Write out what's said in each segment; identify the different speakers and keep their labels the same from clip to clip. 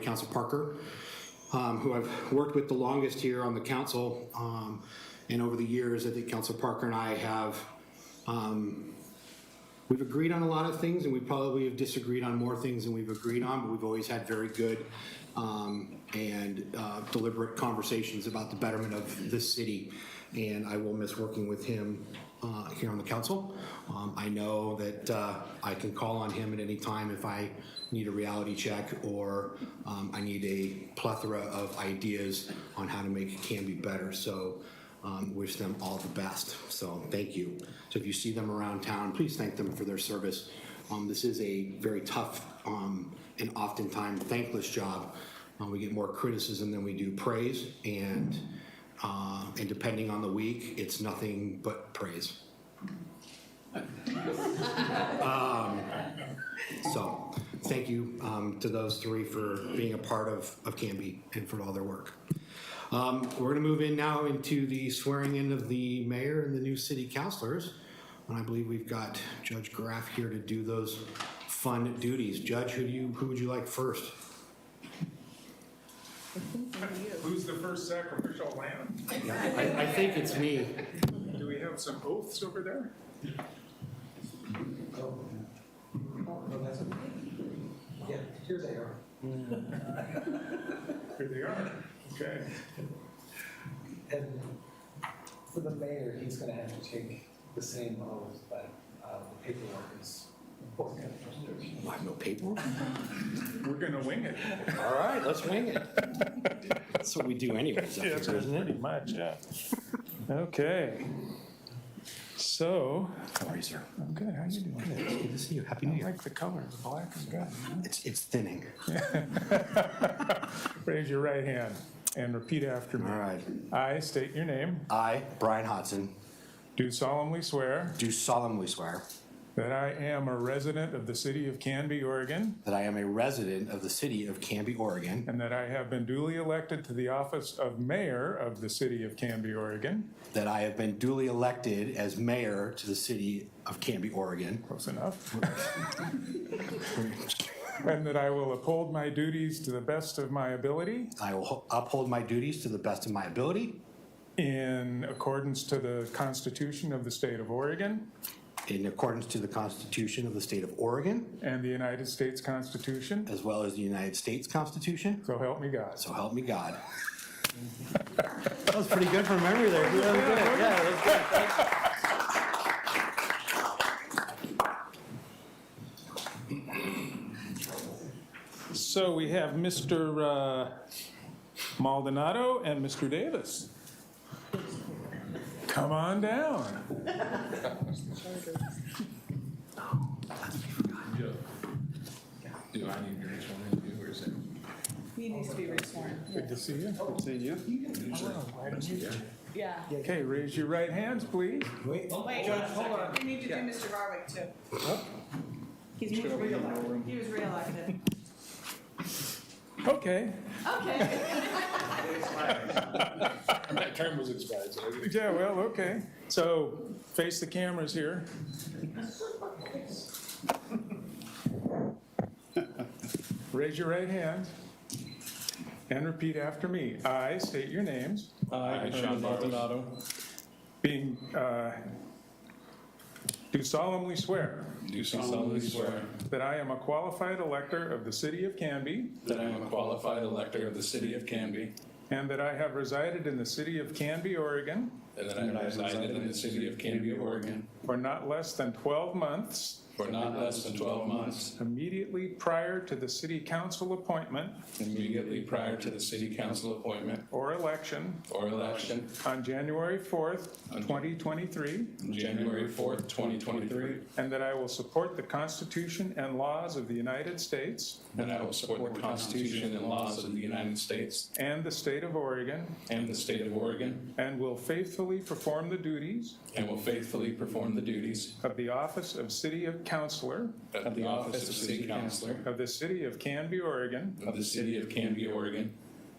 Speaker 1: Council Parker, um, who I've worked with the longest here on the council. Um, and over the years, I think Council Parker and I have, um, we've agreed on a lot of things and we probably have disagreed on more things than we've agreed on, but we've always had very good um, and uh, deliberate conversations about the betterment of this city. And I will miss working with him uh, here on the council. Um, I know that uh, I can call on him at any time if I need a reality check or um, I need a plethora of ideas on how to make Canby better. So um, wish them all the best. So thank you. So if you see them around town, please thank them for their service. Um, this is a very tough um, and oftentimes thankless job. Uh, we get more criticism than we do praise, and uh, and depending on the week, it's nothing but praise. um, so thank you um, to those three for being a part of of Canby and for all their work. Um, We're going to move in now into the swearing in of the mayor and the new city councilors. And I believe we've got Judge Graff here to do those fun duties. Judge, who do you, who would you like first?
Speaker 2: Who's the first sacrificial lamb?
Speaker 1: Yeah, I I think it's me.
Speaker 2: Do we have some oaths over there?
Speaker 3: Oh, no, that's okay. Yeah, here they are.
Speaker 2: Here they are. Okay.
Speaker 3: And for the mayor, he's gonna have to take the same oath, but uh, the paperwork is important.
Speaker 2: Oh,
Speaker 1: I have no paperwork.
Speaker 2: We're gonna wing it.
Speaker 1: All right, let's wing it. That's what we do anyways. up here.
Speaker 2: pretty much, yeah. Okay. So,
Speaker 1: Sorry, sir.
Speaker 2: I'm good. How you doing?
Speaker 1: Good to see you. Happy New
Speaker 2: I
Speaker 1: Year.
Speaker 2: like the color, the black is good.
Speaker 1: It's, it's thinning.
Speaker 2: Raise your right hand and repeat after me.
Speaker 1: All right.
Speaker 2: I state your name,
Speaker 1: I, Brian Hodson,
Speaker 2: do solemnly swear
Speaker 1: do solemnly swear
Speaker 2: that I am a resident of the city of Canby, Oregon,
Speaker 1: that I am a resident of the city of Canby, Oregon,
Speaker 2: and that I have been duly elected to the office of mayor of the city of Canby, Oregon,
Speaker 1: That I have been duly elected as mayor to the city of Canby, Oregon.
Speaker 2: Close enough. And that I will uphold my duties to the best of my ability
Speaker 1: I will ho- uphold my duties to the best of my ability
Speaker 2: in accordance to the Constitution of the State of Oregon
Speaker 1: in accordance to the Constitution of the State of Oregon,
Speaker 2: and the United States Constitution.
Speaker 1: as well as the United States Constitution.
Speaker 2: So help me God.
Speaker 1: So help me God. That was pretty good from memory there. That was good. Yeah, that was good.
Speaker 2: So we have Mr. uh, Maldonado and Mr. Davis. Come on down.
Speaker 4: Yeah. Do I need to reach one of you or is it?
Speaker 5: He needs to be resworn.
Speaker 2: Good to see you. Good to see you.
Speaker 5: Yeah.
Speaker 2: Okay, raise your right hands, please.
Speaker 5: Wait, one second. We need to do Mr. Garwick too. He's moved reelected. He was reelected.
Speaker 2: Okay,
Speaker 5: Okay.
Speaker 4: That term was expired, so I didn't-
Speaker 2: Yeah, well, okay. So face the cameras here. Raise your right hand and repeat after me. I state your names,
Speaker 6: Uh, I, Sean Maldonado,
Speaker 2: being, uh, do solemnly swear
Speaker 6: do solemnly swear
Speaker 2: that I am a qualified elector of the city of Canby
Speaker 6: that I am a qualified elector of the city of Canby
Speaker 2: and that I have resided in the city of Canby, Oregon
Speaker 6: and that I have resided in the city of Canby, Oregon
Speaker 2: for not less than 12 months
Speaker 6: for not less than 12 months
Speaker 2: immediately prior to the city council appointment
Speaker 6: immediately prior to the city council appointment
Speaker 2: or election
Speaker 6: or election
Speaker 2: on January 4th, 2023,
Speaker 6: on January 4th, 2023,
Speaker 2: and that I will support the Constitution and laws of the United States
Speaker 6: and I will support the Constitution and laws of the United States
Speaker 2: and the state of Oregon,
Speaker 6: and the state of Oregon,
Speaker 2: and will faithfully perform the duties
Speaker 6: and will faithfully perform the duties
Speaker 2: of the office of City of Councilor
Speaker 6: of the office of city councilor
Speaker 2: of the City of Canby, Oregon,
Speaker 6: of the city of Canby, Oregon,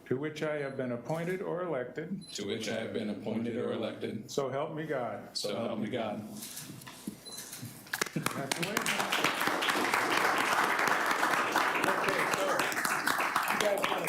Speaker 2: to which I have been appointed or elected,
Speaker 6: to which I have been appointed or elected,
Speaker 2: so help me God.
Speaker 6: so help me God.
Speaker 2: You guys